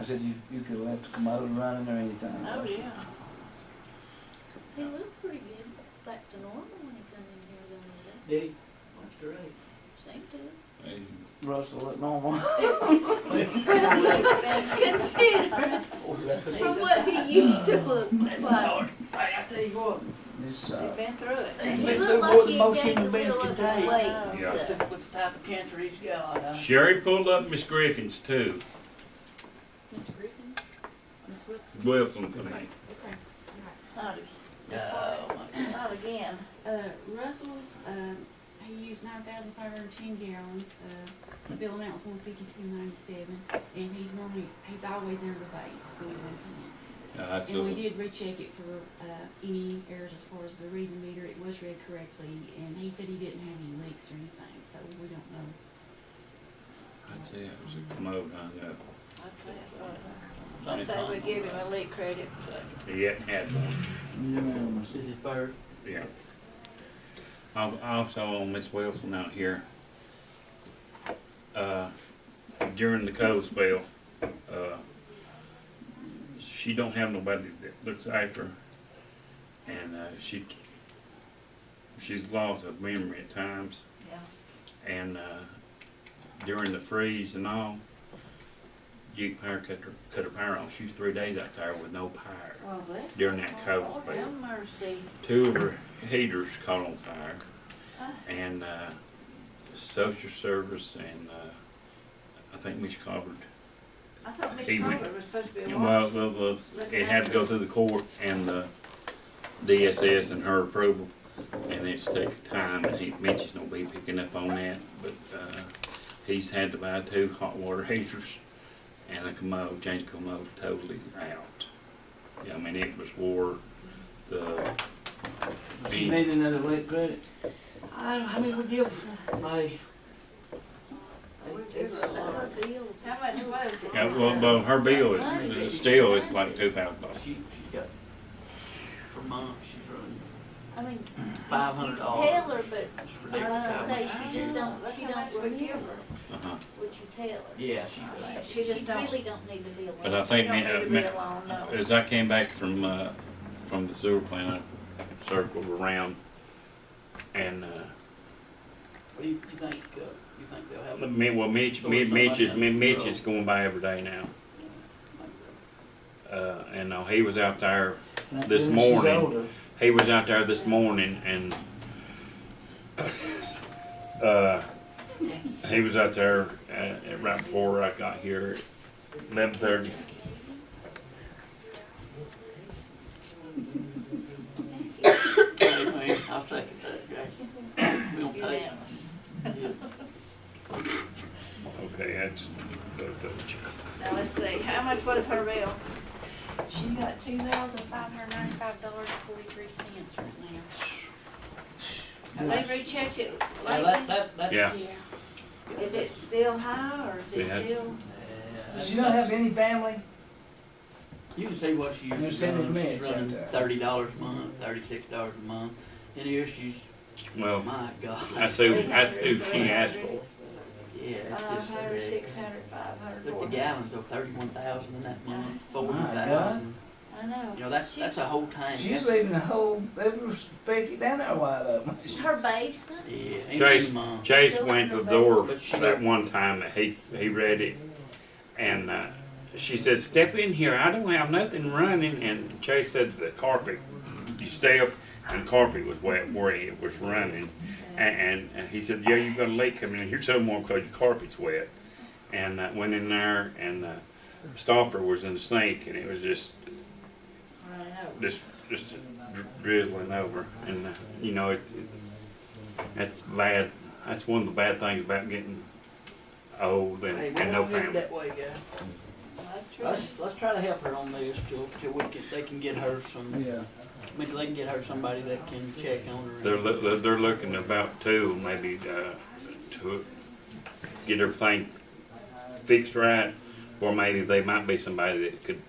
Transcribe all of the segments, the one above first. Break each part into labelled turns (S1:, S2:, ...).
S1: I said, you, you could have to come out running or anything.
S2: Oh,
S1: I said,
S2: yeah.
S3: He looked pretty good, back to normal when he come in here the other day.
S2: Did he? That's great.
S3: Seemed to.
S4: Hey,
S1: Russell looked normal.
S3: Consider from what he used to look like.
S2: Hey, I tell you what,
S1: This,
S2: he's
S1: uh,
S2: been through it.
S3: He
S2: He's
S3: looked
S2: through
S3: like
S2: more
S3: he
S2: than
S3: had
S2: most
S3: gained a
S2: human beings
S3: little
S2: can
S3: of the
S2: take.
S3: weight. and
S4: Yeah.
S3: stuff.
S2: With the type of cancer he's got, uh,
S4: Sherry pulled up Miss Griffin's too.
S5: Miss Griffin? Miss Wilson?
S4: Wilson, I mean.
S5: Okay, all
S3: Not
S2: as
S6: Oh,
S2: far as-
S3: ag- not again.
S5: right. Uh, Russell's, um, he used nine thousand five hundred and ten gallons, uh, the bill amount's one fifty-two ninety-seven, and he's normally, he's always under the base when we went in.
S4: Uh, that's
S5: And we
S4: a,
S5: did recheck it for, uh, any errors as far as the reading meter, it was read correctly, and he said he didn't have any leaks or anything, so we don't know.
S4: that's it, it was a commode hung up.
S2: I say we give him a leak credit, so.
S4: He hadn't had one,
S1: unanimous.
S6: This is third.
S4: yeah. Al- Also on Miss Wilson out here. Uh, during the cold spell, uh, she don't have nobody that looks after her. And, uh, she, she's lost her memory at times.
S3: Yeah.
S4: and uh, during the freeze and all, Duke Power cut her, cut her power off. She was three days out there with no power
S5: Well, bless.
S4: during that cold
S3: Lord
S4: spell.
S3: have mercy.
S4: Two of her heaters caught on fire,
S3: Ah.
S4: and uh, social service and uh, I think Miss Cobbard.
S2: I thought Miss
S4: He went-
S2: Carter was supposed to be a
S4: Well, well, well, it had to go through the court and the DSS and her approval, and it's taking time, and he, Mitch is gonna be picking up on that, but, uh, he's had to buy two hot water heaters and a commode, change the commode totally out. Yeah, I mean, it was war, the,
S1: She made another late credit.
S6: I, I mean, we give my. It's, uh,
S3: Other bills.
S2: How much was it?
S4: yeah, well, well, her bill is, is still, it's like two thousand dollars.
S6: She, she's got, her mom, she's running
S3: I mean,
S6: five hundred
S3: you tell her,
S6: dollars.
S3: but
S2: Uh,
S6: It's
S3: I
S6: ridiculous.
S3: was
S6: how
S3: gonna say,
S6: much
S3: she just don't, she
S2: Look how much
S3: don't
S2: we give her.
S3: remember
S4: Uh-huh.
S3: what you tell her.
S6: Yeah, she does.
S2: She just don't.
S3: really don't need to be alone.
S4: But I think
S2: She don't
S4: me-
S2: need to
S4: me-
S2: be alone, no.
S4: As I came back from, uh, from the sewer plant, I circled around and, uh,
S6: What do you, you think, uh, you think they'll have?
S4: me, well, Mitch,
S6: So it's
S4: Mitch, Mitch is,
S6: somebody-
S4: Mitch is going by every day now. Uh, and uh, he was out there, This
S1: She's
S4: morning.
S1: older.
S4: he was out there this morning and, uh, he was out there, uh, right before I got here, eleven thirty.
S6: Anyway, I'll take it, Jackie. We don't pay.
S2: Unanimous.
S6: Yeah.
S4: Okay, that's, that's,
S2: Now, let's see, how much was her bill?
S5: She got two thousand five hundred ninety-five dollars and forty-three cents right now.
S2: Have they rechecked it
S6: Now,
S2: lately?
S6: that, that, that's.
S4: yeah.
S5: Yeah.
S2: Is it still high, or is
S4: They had-
S2: it still?
S6: Yeah,
S1: Does she not have any family?
S6: You can see what she
S1: They're
S6: usually
S1: sending
S6: runs. She's
S1: meds out
S6: running
S1: there.
S6: thirty dollars a month, thirty-six dollars a month. And here she's,
S4: Well,
S6: my God.
S4: that's who, that's who she asked for.
S6: Yeah, it's
S3: Uh,
S2: Five
S6: just
S2: hundred, six
S6: ridiculous.
S2: hundred, five hundred, four
S6: Look,
S2: hundred?
S6: the gallons of thirty-one thousand in that month, forty
S1: My
S6: thousand.
S2: I know.
S6: You know, that's, that's a whole tank.
S1: She's
S6: That's-
S1: leaving the whole, every Becky down there wide open.
S3: Her basement?
S6: Yeah,
S4: Chase-
S6: ain't no mom.
S4: Chase went to the door that one time that he, he read it, and uh, she said, "Step in here. I don't have nothing running." And Chase said, "The carpet. You step, and carpet was wet where it was running." And, and, and he said, "Yeah, you got a leak coming in. Here's some more because your carpet's wet." And uh, went in there, and uh, stopper was in the sink, and it was just
S2: I know.
S4: just just dri- drizzling over, and uh, you know it, it. That's bad. That's one of the bad things about getting old and,
S6: Hey, we
S4: and no
S6: don't live
S4: family.
S6: that way, guys.
S2: That's true.
S6: Let's, let's try to help her on this till, till we can, they can get her some,
S1: Yeah.
S6: I mean, they can get her somebody that can check on her. and-
S4: They're loo- they're- they're looking about two maybe uh, to get everything fixed right, or maybe they might be somebody that could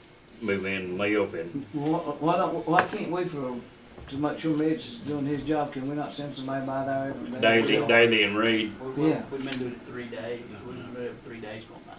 S4: move in and live and
S1: Why, why, don't- why can't we for, to make sure Mitch is doing his job, can we not send somebody by there every day?
S4: daily daily and read.
S6: We- we-
S1: Yeah.
S6: We've been doing it three days, we've been doing it three days, gonna